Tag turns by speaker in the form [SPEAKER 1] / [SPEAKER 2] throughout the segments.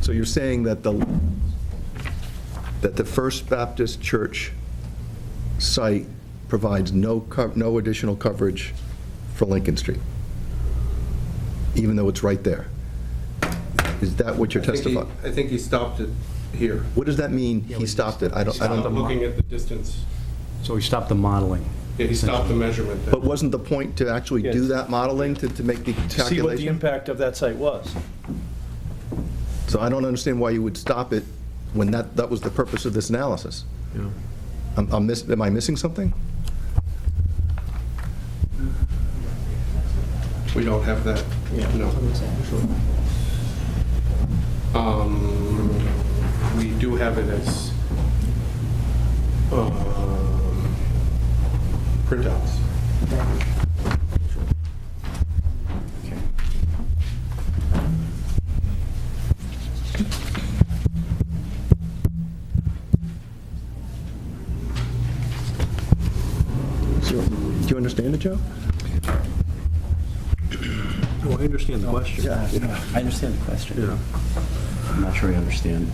[SPEAKER 1] So you're saying that the, that the First Baptist Church site provides no, co- no additional coverage for Lincoln Street, even though it's right there? Is that what you're
[SPEAKER 2] I think he-
[SPEAKER 1] testifying?
[SPEAKER 2] I think he stopped it here.
[SPEAKER 1] What does that mean, he stopped it? I don't, I
[SPEAKER 2] Stopped
[SPEAKER 1] don't,
[SPEAKER 2] Looking at the distance.
[SPEAKER 3] So we stopped the modeling.
[SPEAKER 2] Yeah, he stopped the measurement there.
[SPEAKER 1] but wasn't the point to actually do
[SPEAKER 4] Yes.
[SPEAKER 1] that modeling, to, to make the
[SPEAKER 4] see what the
[SPEAKER 1] calculation?
[SPEAKER 4] impact of that site was.
[SPEAKER 1] So I don't understand why you would stop it when that, that was the purpose of this analysis. I'm, I'm miss, am I missing something?
[SPEAKER 2] We don't have that, no. Um, We do have it as um, printouts.
[SPEAKER 1] Do you understand it, Joe?
[SPEAKER 5] No, I understand the question.
[SPEAKER 3] Yeah, I understand the question. I'm not sure I understand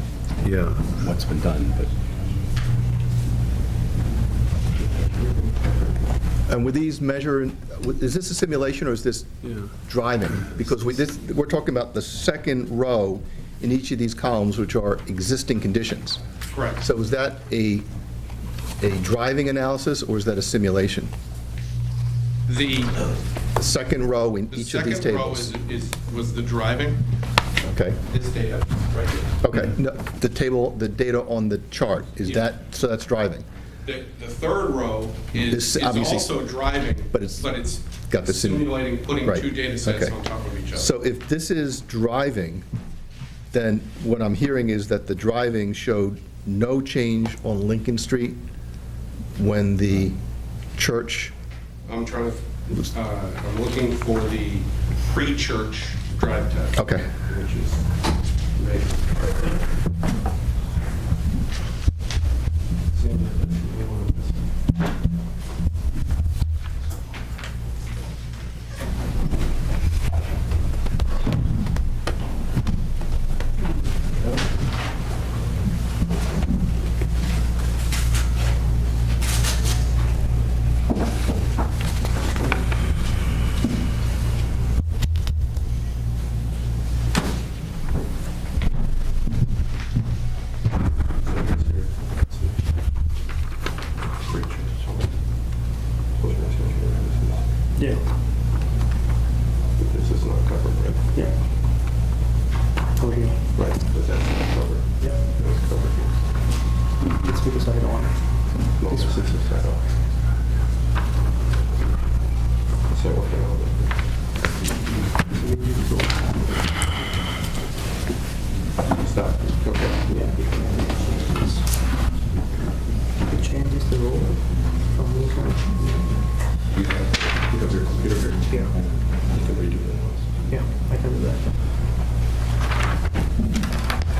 [SPEAKER 5] Yeah.
[SPEAKER 3] what's been done, but
[SPEAKER 1] And with these measure, is this a simulation or is this
[SPEAKER 5] Yeah.
[SPEAKER 1] driving? Because we, this, we're talking about the second row in each of these columns, which are existing conditions.
[SPEAKER 2] Correct.
[SPEAKER 1] So is that a, a driving analysis or is that a simulation?
[SPEAKER 2] The
[SPEAKER 1] The second row in
[SPEAKER 2] the
[SPEAKER 1] each of these
[SPEAKER 2] second row
[SPEAKER 1] tables?
[SPEAKER 2] is, is- was the driving,
[SPEAKER 1] Okay,
[SPEAKER 2] this data, right here.
[SPEAKER 1] okay. No, The table, the data on the chart, is
[SPEAKER 2] Mhm. Yeah.
[SPEAKER 1] that, so that's driving?
[SPEAKER 2] The, the third row
[SPEAKER 1] This
[SPEAKER 2] is, is
[SPEAKER 1] obviously-
[SPEAKER 2] also driving,
[SPEAKER 1] but
[SPEAKER 2] but
[SPEAKER 1] it's
[SPEAKER 2] it's
[SPEAKER 1] got the sim-
[SPEAKER 2] simulating, putting
[SPEAKER 1] right,
[SPEAKER 2] two data
[SPEAKER 1] okay.
[SPEAKER 2] sets on top of each other.
[SPEAKER 1] So if this is driving, then what I'm hearing is that the driving showed no change on Lincoln Street when the church,
[SPEAKER 2] I'm trying to, uh, I'm looking for the pre-church drive test.
[SPEAKER 1] Okay.
[SPEAKER 2] Which is, right.
[SPEAKER 4] Yeah,
[SPEAKER 2] This is not covered, right?
[SPEAKER 4] yeah. Over here.
[SPEAKER 2] Right, but that's not covered.
[SPEAKER 4] Yeah.
[SPEAKER 2] That's covered here.
[SPEAKER 4] It's because I don't want it.
[SPEAKER 2] No, this is a set off. So, okay, I'll look. Stop, okay.
[SPEAKER 4] Changes the role from
[SPEAKER 2] You have, you have your computer here.
[SPEAKER 4] Yeah,
[SPEAKER 2] You can redo that.
[SPEAKER 4] yeah, I can do that.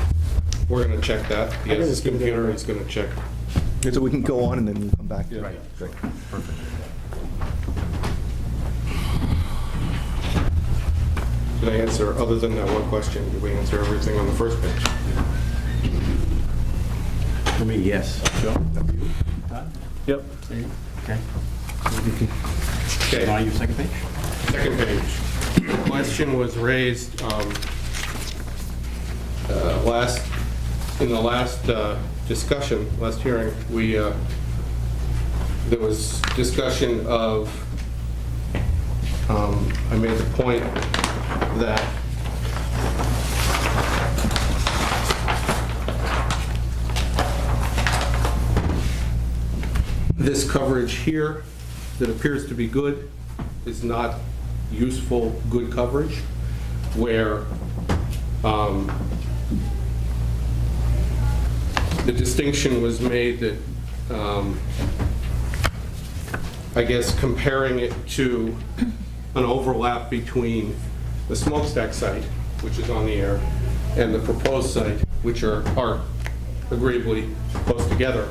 [SPEAKER 2] We're gonna check that. He has his computer, he's gonna check.
[SPEAKER 1] so we can go on and then we'll come back.
[SPEAKER 2] Right.
[SPEAKER 1] Great.
[SPEAKER 2] Did I answer, other than that one question, did we answer everything on the first page?
[SPEAKER 3] I mean, yes.
[SPEAKER 4] Yep.
[SPEAKER 3] Okay. Now
[SPEAKER 2] Okay,
[SPEAKER 3] your second page?
[SPEAKER 2] second page. Question was raised, um, uh, last, in the last uh, discussion, last hearing, we, uh, there was discussion of, um, I made the point that this coverage here that appears to be good is not useful, good coverage, where um, the distinction was made that, um, I guess, comparing it to an overlap between the smokestack site, which is on the air, and the proposed site, which are are agreeably close together,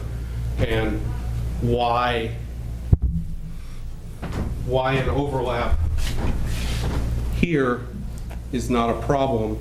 [SPEAKER 2] and why, why an overlap here is not a problem